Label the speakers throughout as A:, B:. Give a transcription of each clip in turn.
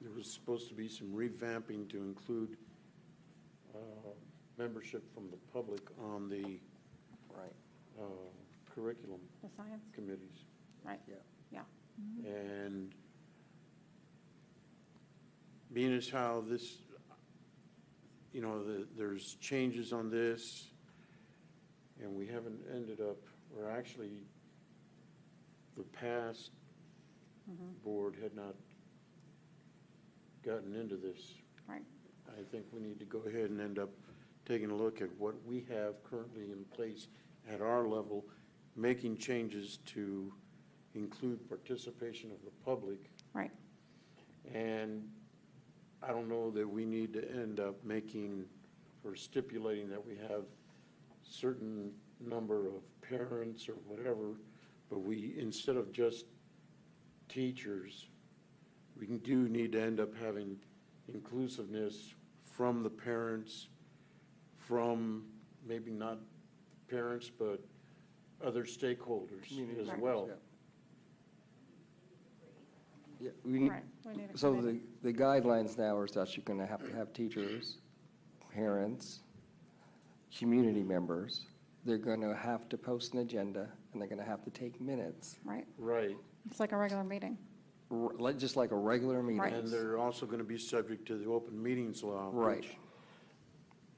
A: there was supposed to be some revamping to include uh, membership from the public on the
B: Right.
A: uh, curriculum
C: The science,
A: committees.
C: right,
B: Yeah.
C: yeah.
A: And being as how this, you know, the- there's changes on this, and we haven't ended up, or actually, the past board had not gotten into this.
C: Right.
A: I think we need to go ahead and end up taking a look at what we have currently in place at our level, making changes to include participation of the public.
C: Right.
A: And I don't know that we need to end up making or stipulating that we have certain number of parents or whatever, but we, instead of just teachers, we can- do need to end up having inclusiveness from the parents, from maybe not parents, but other stakeholders as
C: Right.
A: well.
B: Yeah, we need,
C: Right, we need a
B: so the,
C: committee.
B: the guidelines now are such you're gonna have to have teachers, parents, community members. They're gonna have to post an agenda, and they're gonna have to take minutes,
C: Right,
A: Right.
C: it's like a regular meeting,
B: r- like, just like a regular
A: And
B: meeting.
A: they're also going to be subject to the open meetings law.
B: Right.
A: which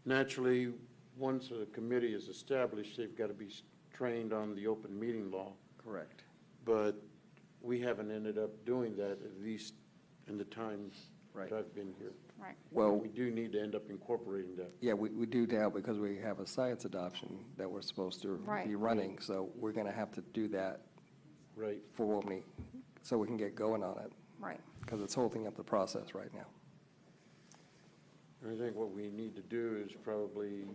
A: Naturally, once a committee is established, they've got to be s- trained on the open meeting law.
B: Correct.
A: But we haven't ended up doing that, at least in the time that
B: Right.
A: I've been here.
C: right,
B: Well,
A: We do need to end up incorporating that.
B: yeah, we, we do now because we have a science adoption that we're supposed to
C: Right.
B: be running, so we're gonna have to do that
A: Right.
B: for Wobney, so we can get going on it,
C: right.
B: because it's holding up the process right now.
A: And I think what we need to do is probably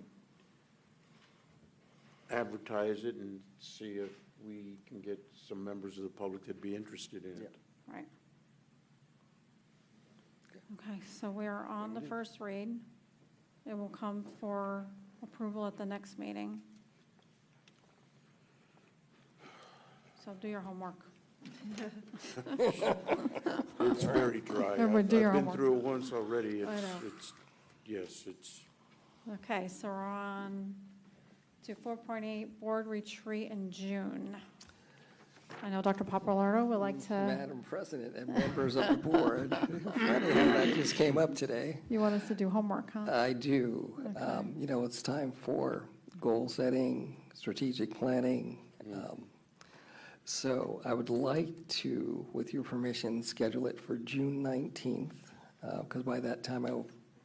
A: advertise it and see if we can get some members of the public that'd be interested in it.
B: Yep.
C: Right. Okay, so we are on the first read. It will come for approval at the next meeting. So do your homework.
A: It's very dry.
C: Yeah, but
A: I've-
C: dear,
A: I've
C: I
A: been
C: want-
A: through it once already.
C: I
A: It's,
C: know.
A: it's, yes, it's,
C: Okay, so we're on to 4.8 Board Retreat in June. I know Dr. Papalardo would like to,
B: Madam President and members of the board, funny how that just came up today.
C: you want us to do homework, huh?
B: I do. Um, You know, it's time for goal setting, strategic planning. Um, So I would like to, with your permission, schedule it for June 19th, because by that time I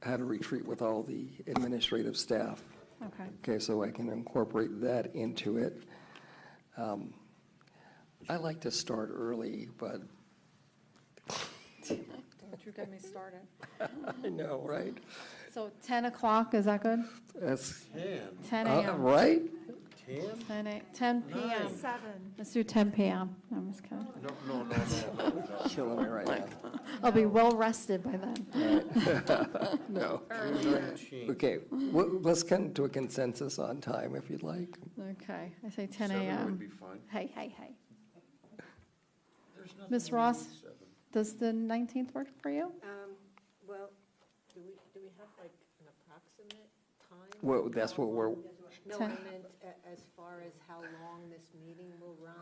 B: had a retreat with all the administrative staff.
C: Okay,
B: Okay, so I can incorporate that into it. Um, I like to start early, but
C: don't you get me started.
B: I know, right?
C: So 10 o'clock, is that good?
B: That's,
A: 10,
C: 10
B: uh,
C: a.m.
B: right?
A: 10?
C: 10 a- 10 p.m. Seven. Let's do 10 p.m. No, I'm just kidding.
A: No, no, no, no, no.
B: Killing me right now.
C: I'll be well rested by then.
B: No.
A: Earlier.
B: Okay, w- let's come to a consensus on time if you'd like.
C: Okay, I say 10
A: Seven would be
C: a.m.
A: fine.
C: Hey, hey, hey.
A: There's nothing
C: Ms.
A: wrong with
C: Ross?
A: seven.
C: Does the 19th work for you?
D: Um, well, do we, do we have like an approximate time?
B: Well, that's what we're-
D: No, I
C: Ten.
D: meant a- as far as how long this meeting will run?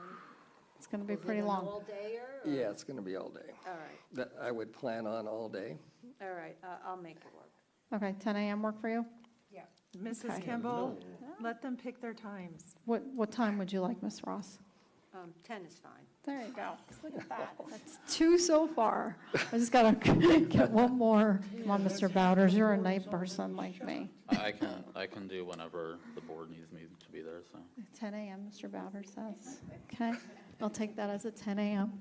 C: It's going to be
D: Is it
C: pretty
D: an
C: long.
D: all-dayer or-
B: Yeah, it's going to be all day.
D: All right,
B: That I would plan on all day.
D: all right, I- I'll make it work.
C: Okay, 10 a.m. work for you?
D: Yeah.
C: Okay.
E: Mrs. Kimball, let them pick their times.
C: What, what time would you like, Ms. Ross?
D: Um, ten is fine.
C: There you go. Look at that. That's two so far. I just got to get one more. Come on, Mr. Bowders, you're a night person like me.
F: I can, I can do whenever the board needs me to be there, so.
C: 10 a.m., Mr. Bowder says. Okay, I'll take that as a 10 a.m.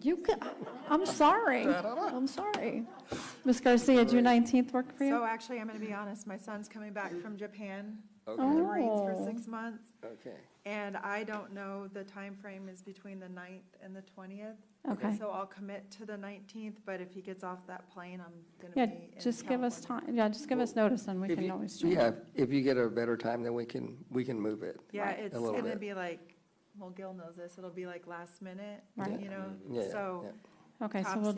C: You, ca- I'm sorry. I'm sorry. Ms. Garcia, June 19th work for
E: So
C: you?
E: actually, I'm going to be honest, my son's coming back from Japan, from the Marines for
C: Oh.
E: six months,
B: Okay.
E: and I don't know, the time frame is between the 9th and the 20th.
C: Okay.
E: So I'll commit to the 19th, but if he gets off that plane, I'm going to
C: Yeah,
E: be in California.
C: just give us time, yeah, just give us notice and we
B: If
C: can
B: you-
C: always change.
B: Yeah, if you get a better time, then we can, we can move it.
E: Yeah,
C: Right.
E: it's
B: A little
E: going to
B: bit.
E: be like, well, Gil knows this, it'll be like last minute,
C: Right.
E: you
B: Yeah,
E: know,
B: yeah,
E: so.
B: yeah.
C: Okay, so we'll